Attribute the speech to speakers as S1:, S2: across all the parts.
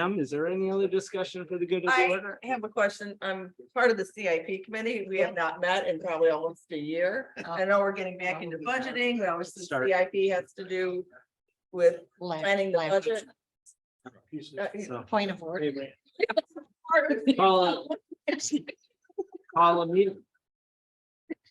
S1: Em, Is there any other discussion for the good of the
S2: I
S1: order?
S2: have a question. I'm part of the CIP committee. We have not met in probably almost a year.
S3: Oh,
S2: I know we're getting back into budgeting. That was the
S1: Start.
S2: CIP has to do with planning the budget. Uh,
S1: So,
S3: Point of order.
S1: anyway, Call call a uh, meeting,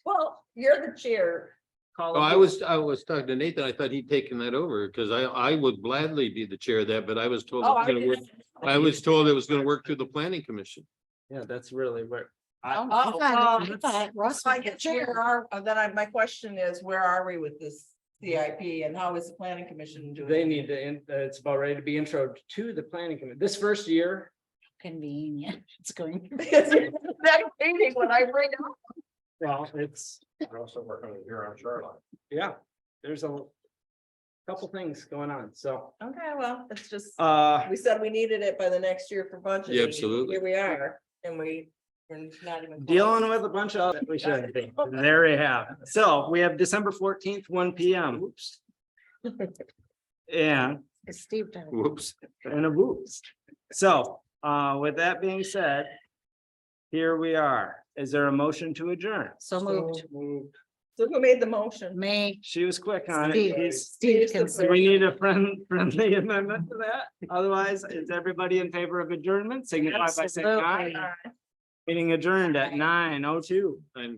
S2: Well, you're the chair.
S1: call.
S4: Oh,
S1: a
S4: I
S1: meeting.
S4: was, I was talking to Nathan. I thought he'd taken that over because I, I would gladly be the chair of that, but I was told. it
S2: Oh,
S4: was
S2: I
S4: gonna work-
S2: didn't-
S4: I was told it was gonna work through the planning commission.
S1: Yeah, that's really where. I,
S3: Oh, I thought- I
S1: um,
S3: thought Russ
S2: So I
S3: was the
S2: guess where
S3: chair.
S2: are, uh, then I, my question is, where are we with this CIP and how is the planning commission doing?
S1: they need to, in- uh, it's about ready to be intro to the planning committee. This first year,
S3: Convenient. It's going.
S2: Because Next meeting when I bring up.
S1: well, it's,
S5: We're also working with here on Charlotte.
S1: yeah, there's a couple things going on, so,
S2: Okay, well, it's just,
S1: uh,
S2: we said we needed it by the next year for budget.
S4: Yeah, absolutely.
S2: Here we are, and we, we're not even. close.
S1: dealing with a bunch of, we shouldn't be. There we have. So we have December fourteenth, one P M. Oops. And
S3: Steve. did.
S4: Whoops.
S1: and a boost. So, uh, with that being said. Here we are. Is there a motion to adjourn?
S3: So moved.
S2: So who made the motion?
S3: May.
S1: She was quick on it.
S3: Steve,
S1: He's-
S3: Steve can.
S1: Do we need a friend, friendly amendment to that? Otherwise, is everybody in favor of adjournment? Signify by saying aye.
S3: Absolutely.
S1: Meeting adjourned at nine oh two.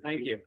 S1: Thank you.